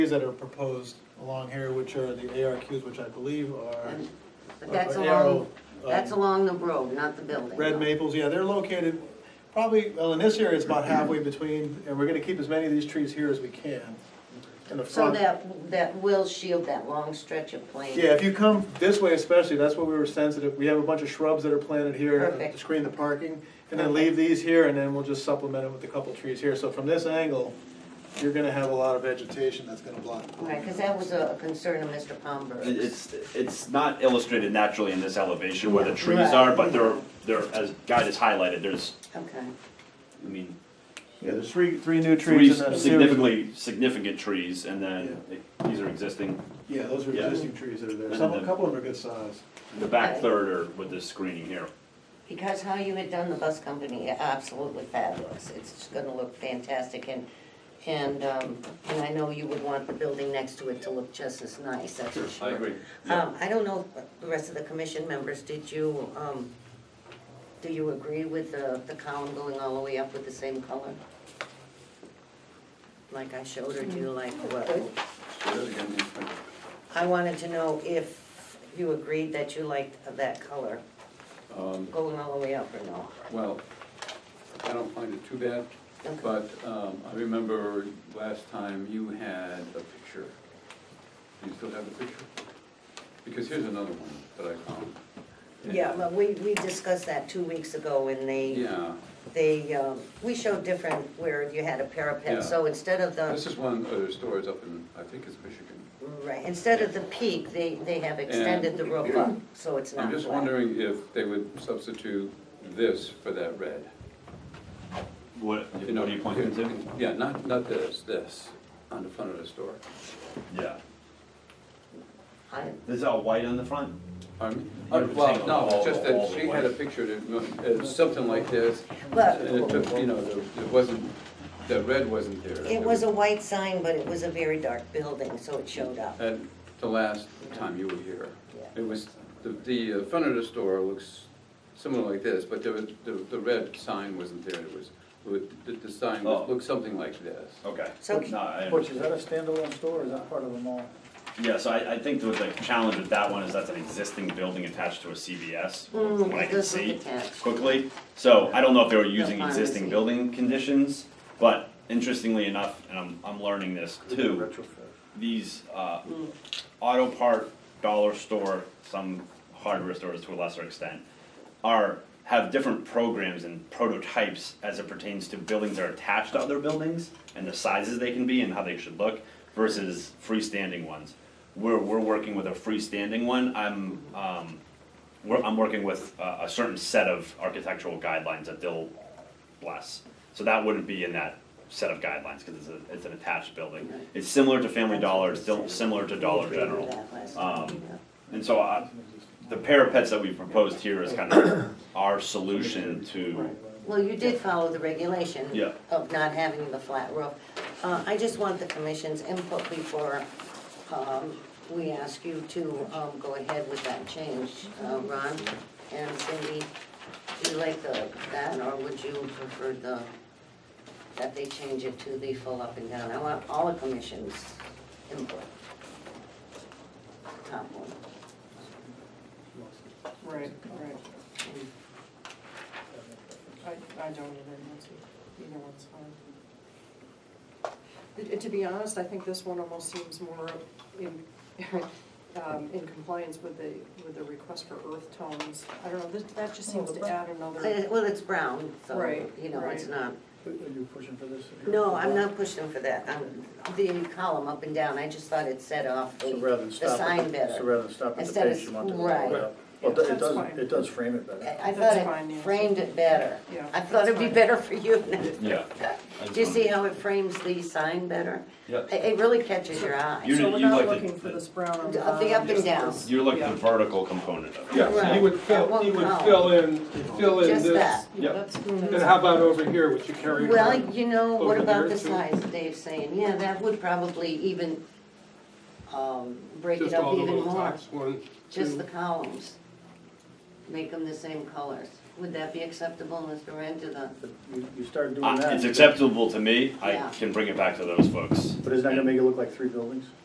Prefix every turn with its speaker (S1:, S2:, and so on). S1: that are proposed along here, which are the ARQs, which I believe are.
S2: And- But
S1: are
S2: that's
S1: Uh, arrow,
S2: along, that's
S1: um,
S2: along the road, not the building.
S1: Red maples, yeah, they're located, probably, well, in this area, it's about halfway between, and we're gonna keep as many of these trees here as we can. In the
S2: So
S1: front.
S2: that, that will shield that long stretch of plain.
S1: Yeah, if you come this way especially, that's what we were sensitive, we have a bunch of shrubs that are planted here to
S2: Perfect.
S1: screen the parking. And then leave these here, and then we'll just supplement it with a couple trees here, so from this angle, you're gonna have a lot of vegetation that's gonna block. the
S2: Right, because that was a concern of Mr. Palmberg's.
S3: It- It's, it's not illustrated naturally in this elevation where the trees
S2: Right.
S3: are, but they're, they're, as Guy has highlighted, there's,
S2: Okay,
S3: I mean,
S1: Yeah, there's three, three new
S3: three
S1: trees in that series.
S3: significantly, significant trees, and then these are existing.
S1: Yeah, those are
S3: Yeah.
S1: existing trees that are there. Some, a couple of them are good size.
S3: The back
S2: Right.
S3: third are with this screening here.
S2: because how you had done the bus company, absolutely fabulous, it's just gonna look fantastic, and, and, um, and I know you would want the building next to it to look just as nice, that's for sure. Um, I don't know, if the rest of the commission members, did you, um, do you agree with the, the column going all the way up with the same color? Like I showed, or do you like what? I wanted to know if you agreed that you liked that color,
S4: Um,
S2: going all the way up or no?
S4: Well, I don't find it too bad,
S2: Okay.
S4: but um, I remember last time you had a picture. Do you still have the picture? Because here's another one that I found.
S2: Yeah, but we, we discussed that two weeks ago when they,
S4: Yeah,
S2: they, um, we showed different where you had a
S4: Yeah.
S2: parapet, so instead of the.
S4: this is one of the stores up in, I think it's Michigan.
S2: Right, instead of the peak, they, they have extended the roof up, so it's not
S4: I'm just
S2: flat.
S4: wondering if they would substitute this for that red.
S3: What, what are you pointing to?
S4: Yeah, not, not this, this, on the front of the store.
S3: Yeah.
S2: I-
S3: Is that white on the front?
S4: Pardon me?
S3: You were saying
S4: Oh, Well, no,
S3: all-
S4: it's just
S3: all
S4: that
S3: the
S4: she
S3: way.
S4: had a picture that, uh, something like this, And it
S2: But
S4: took, you know, there- it wasn't, the red wasn't there.
S2: it was a white sign, but it was a very dark building, so it showed up.
S4: At the last time you were here.
S2: Yeah.
S4: It was, the, the uh, front of the store looks similar like this, but there was, the, the red sign wasn't there. It was, it- the, the sign was-
S3: Oh.
S4: looked something like this.
S3: Okay.
S2: So-
S3: No, I
S5: Butch,
S3: understand.
S5: is that a standalone store or is that part of a mall?
S3: Yeah, so I, I think that the challenge with that one is that's an existing building attached to a CVS, from what I
S2: it
S3: can
S2: does look
S3: see
S2: Mm, attached.
S3: quickly. So I don't know if they were using
S2: The pharmacy.
S3: existing building conditions, but interestingly enough, and I'm, I'm learning this too, these, uh, auto part, dollar store, some hardware stores to a lesser extent, are, have different programs and prototypes as it pertains to buildings that are attached to other buildings and the sizes they can be and how they should look versus freestanding ones. We're, we're working with a freestanding one, I'm, um, we're, I'm working with uh, a, a certain set of architectural guidelines that they'll bless. So that wouldn't be in that set of guidelines, cause it's a, it's an attached building. It's similar to Family Dollar, it's still similar to Dollar
S2: We agreed with
S3: General.
S2: that last time,
S3: Um,
S2: yeah.
S3: And so I, the parapets that we proposed here is kind of our solution to,
S2: Well, you did follow the regulation.
S3: Yeah.
S2: Of not having the flat roof. Uh, I just want the commission's input before, um, we ask you to, um, go ahead with that change. Uh, Ron and Cindy, do you like the, that, or would you prefer the, that they change it to the full up and down? I want all the commission's input. Top one.
S6: Right, right. I, I don't either, that's, either one's fine. It- it- To be honest, I think this one almost seems more in, um, in compliance with the, with the request for earth tones. I don't know, that, that just seems to add
S2: Uh,
S6: another,
S2: Well, it's brown, so,
S6: Right,
S2: you know, it's
S6: right.
S2: not.
S5: Are you pushing for this?
S2: No, I'm not pushing for that, I'm, the column up and down, I just thought it set off
S5: So rather
S2: the,
S5: than
S2: the
S5: stop.
S2: sign
S5: at- So
S2: better.
S5: rather than stop at the
S2: Instead of-
S5: base, you want to.
S2: right.
S5: Well, it
S6: That's
S5: does,
S6: fine.
S5: it does frame it better.
S2: I I
S6: That's
S2: thought
S6: fine,
S2: it
S6: yeah.
S2: framed it better.
S6: Yeah,
S2: I thought it'd be
S6: that's fine.
S2: better for you now.
S3: yeah.
S2: Do you see how it frames the sign better?
S3: Yeah.
S2: It, it really catches your eye.
S3: You-
S6: so we're
S3: you'd
S6: not
S3: like the-
S6: looking for this brown on the
S2: Of the up
S6: bottom,
S2: and
S6: just
S2: down.
S6: this-
S3: You're looking at
S6: yeah.
S3: the vertical component of it.
S7: Yeah, so you would
S2: Right.
S7: fill, you would fill in, fill in
S2: Just that.
S7: this.
S6: Yeah,
S3: Yep.
S6: that's,
S7: And how about over here, which you carry?
S2: Well,
S7: around?
S2: you know, what
S7: Over
S2: about
S7: here,
S2: the
S7: too.
S2: size Dave's saying, yeah, that would probably even, um, break it
S7: Just
S2: up
S7: all the
S2: even
S7: little
S2: more,
S7: tops, one,
S2: just
S7: two.
S2: the columns. Make them the same colors. Would that be acceptable, Mr. Rand, to the,
S1: But You, you start doing
S3: Uh,
S1: that.
S3: It's acceptable to me, I
S2: Yeah.
S3: can bring it back to those folks.
S1: But isn't that gonna make it look like three buildings?